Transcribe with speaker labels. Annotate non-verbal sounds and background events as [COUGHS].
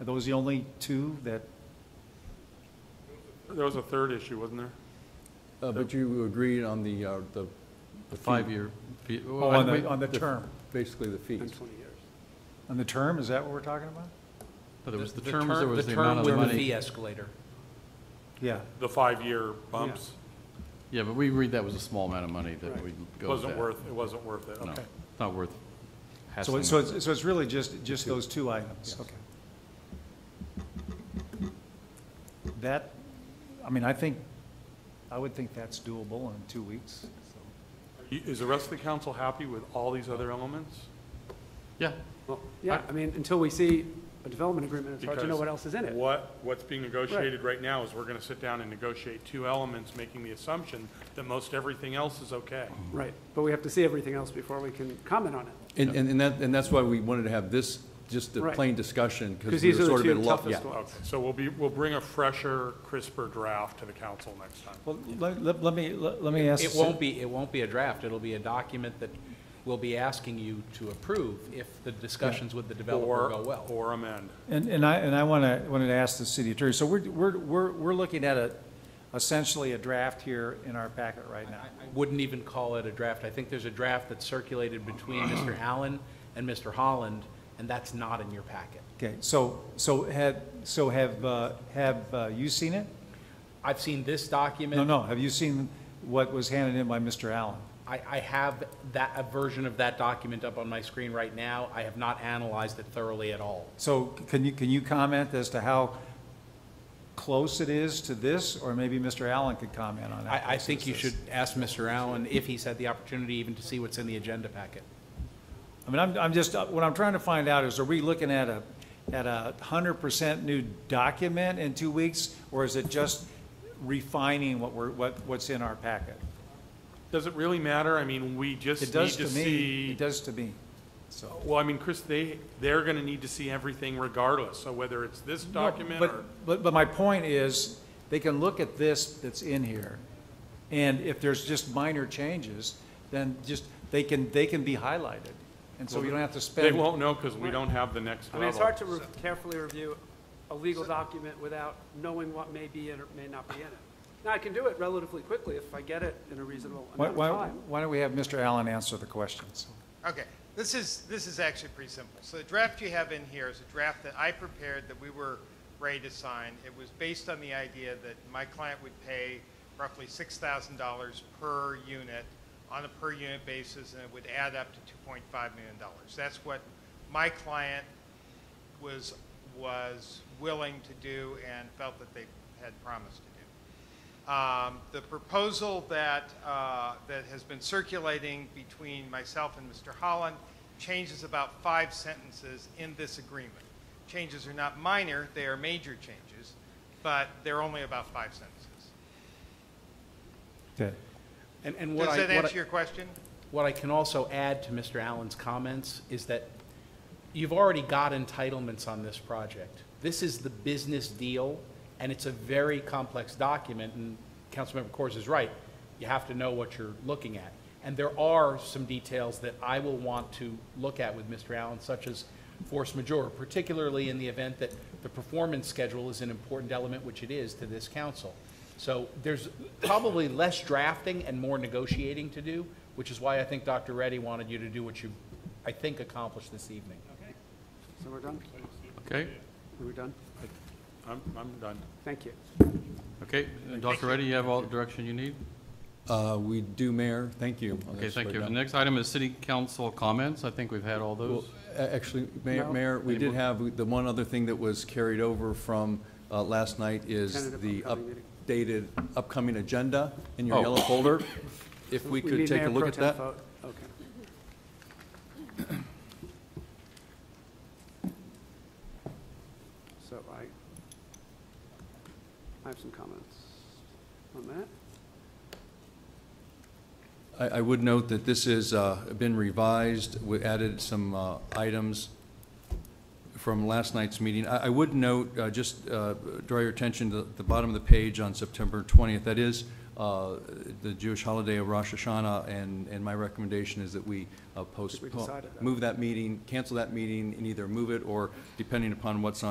Speaker 1: Are those the only two that,
Speaker 2: There was a third issue, wasn't there?
Speaker 3: Uh, But you agreed on the, uh, the.
Speaker 4: The
Speaker 3: fee,
Speaker 4: five-year fee.
Speaker 1: oh, on the, on the term?
Speaker 3: Basically the fees.
Speaker 1: On the term, is that what we're talking about?
Speaker 4: But it was the term, there was the amount
Speaker 5: The
Speaker 4: of
Speaker 5: term with the
Speaker 4: money.
Speaker 5: fee escalator.
Speaker 1: Yeah,
Speaker 2: The five-year bumps
Speaker 4: Yeah, but we agreed that was a small amount of money that we'd go with
Speaker 2: wasn't
Speaker 4: that.
Speaker 2: worth, it wasn't worth it,
Speaker 4: No,
Speaker 2: okay.
Speaker 4: Not worth
Speaker 1: so,
Speaker 4: hassling.
Speaker 1: it- so it's, so it's really just, just those two items, okay. That, I mean, I think, I would think that's doable in two weeks, so.
Speaker 2: You- Is the rest of the council happy with all these other elements?
Speaker 4: Yeah,
Speaker 6: Well, yeah, I mean, until we see a development agreement, it's hard to know
Speaker 2: Because
Speaker 6: what else is in it.
Speaker 2: What, what's being negotiated right now is we're gonna sit down and negotiate two elements, making the assumption that most everything else is okay.
Speaker 6: Right, but we have to see everything else before we can comment on it.
Speaker 3: And, and and that, and that's why we wanted to have this, just a
Speaker 6: Right.
Speaker 3: plain discussion,
Speaker 6: Because
Speaker 3: because we
Speaker 6: these
Speaker 3: were
Speaker 6: are the
Speaker 3: sort of
Speaker 6: two
Speaker 3: in love.
Speaker 6: toughest
Speaker 3: yeah.
Speaker 6: ones.
Speaker 2: Okay, so we'll be, we'll bring a fresher, crisper draft to the council next time.
Speaker 1: Well, let, let- let me, let let me ask.
Speaker 5: It won't be, it won't be a draft, it'll be a document that we'll be asking you to approve if the discussions with the developer
Speaker 2: Or-
Speaker 5: go well.
Speaker 2: Or amend.
Speaker 1: And, and I, and I want to, wanted to ask the city attorney, so we're, we're, we're, we're looking at a, essentially a draft here in our packet right now.
Speaker 5: I wouldn't even call it a draft. I think there's a draft that's circulated between
Speaker 1: [CLEARS THROAT]
Speaker 5: Mr. Allen and Mr. Holland, and that's not in your packet.
Speaker 1: Okay, so, so had, so have, uh, have uh, you seen it?
Speaker 5: I've seen this
Speaker 1: No,
Speaker 5: document.
Speaker 1: no, have you seen what was handed in by Mr. Allen?
Speaker 5: I, I have that, a version of that document up on my screen right now. I have not analyzed it thoroughly at all.
Speaker 1: So can you, can you comment as to how close it is to this, or maybe Mr. Allen could comment on that?
Speaker 5: I, I think you should ask Mr. Allen if he's had the opportunity even to see what's in the agenda packet.
Speaker 1: I mean, I'm, I'm just, uh, what I'm trying to find out is, are we looking at a, at a hundred percent new document in two weeks? Or is it just refining what we're, what, what's in our packet?
Speaker 2: Does it really matter? I mean, we just
Speaker 1: It
Speaker 2: need
Speaker 1: does
Speaker 2: to
Speaker 1: to me,
Speaker 2: see.
Speaker 1: it does to me, so.
Speaker 2: Well, I mean, Chris, they, they're gonna need to see everything regardless, so whether it's this document
Speaker 1: But-
Speaker 2: or.
Speaker 1: But, but my point is, they can look at this that's in here, and if there's just minor changes, then just, they can, they can be highlighted. And so you don't have to spend.
Speaker 2: They won't know because we don't have the next
Speaker 6: I
Speaker 2: level.
Speaker 6: mean, it's hard to re- carefully review a legal document without knowing what may be in or may not be in it. Now, I can do it relatively quickly if I get it in a reasonable
Speaker 1: Why,
Speaker 6: amount of
Speaker 1: why,
Speaker 6: time.
Speaker 1: why don't we have Mr. Allen answer the questions?
Speaker 7: Okay, this is, this is actually pretty simple. So the draft you have in here is a draft that I prepared that we were ready to sign. It was based on the idea that my client would pay roughly six thousand dollars per unit on a per unit basis, and it would add up to two point five million dollars. That's what my client was, was willing to do and felt that they had promised to do. Um, The proposal that, uh, that has been circulating between myself and Mr. Holland changes about five sentences in this agreement. Changes are not minor, they are major changes, but they're only about five sentences.
Speaker 1: Okay.
Speaker 5: And, and what I.
Speaker 7: Does that
Speaker 5: what I-
Speaker 7: answer your question?
Speaker 5: What I can also add to Mr. Allen's comments is that you've already got entitlements on this project. This is the business deal, and it's a very complex document, and Councilmember Corrs is right. You have to know what you're looking at. And there are some details that I will want to look at with Mr. Allen, such as force majeure, particularly in the event that the performance schedule is an important element, which it is to this council. So there's probably less drafting and more negotiating to do, which is why I think Dr. Reddy wanted you to do what you, I think, accomplished this evening.
Speaker 6: So we're done?
Speaker 4: okay,
Speaker 6: We're done?
Speaker 2: I'm, I'm done.
Speaker 6: Thank you.
Speaker 4: okay. Dr. Reddy, you have all the direction you need?
Speaker 3: Uh, we do, Mayor, thank you. on
Speaker 4: Okay,
Speaker 3: this
Speaker 4: thank
Speaker 3: right
Speaker 4: you.
Speaker 3: now.
Speaker 4: The next item is city council comments. I think we've had all
Speaker 3: Well,
Speaker 4: those.
Speaker 3: a- Actually, Mayor,
Speaker 6: No.
Speaker 3: Mayor, we did
Speaker 4: Anymore?
Speaker 3: have, the one other thing that was carried over from uh, last night is
Speaker 6: Tentative
Speaker 3: the
Speaker 6: upcoming meeting.
Speaker 3: updated upcoming agenda in your
Speaker 4: Oh.
Speaker 3: yellow
Speaker 4: [COUGHS]
Speaker 3: folder. If we could
Speaker 6: need
Speaker 3: take a
Speaker 6: Mayor
Speaker 3: look
Speaker 6: Pro
Speaker 3: at
Speaker 6: Tem
Speaker 3: that.
Speaker 6: vote. Okay. So I, I have some comments on that.
Speaker 3: I, I would note that this has been revised, we added some uh, items from last night's meeting. I, I would note, uh, just uh, draw your attention to the bottom of the page on September 20th. That is uh, the Jewish holiday of Rosh Hashanah, and, and my recommendation is that we uh, postpone,
Speaker 6: decided that.
Speaker 3: move that meeting, cancel that meeting, and either move it or, depending upon what's on.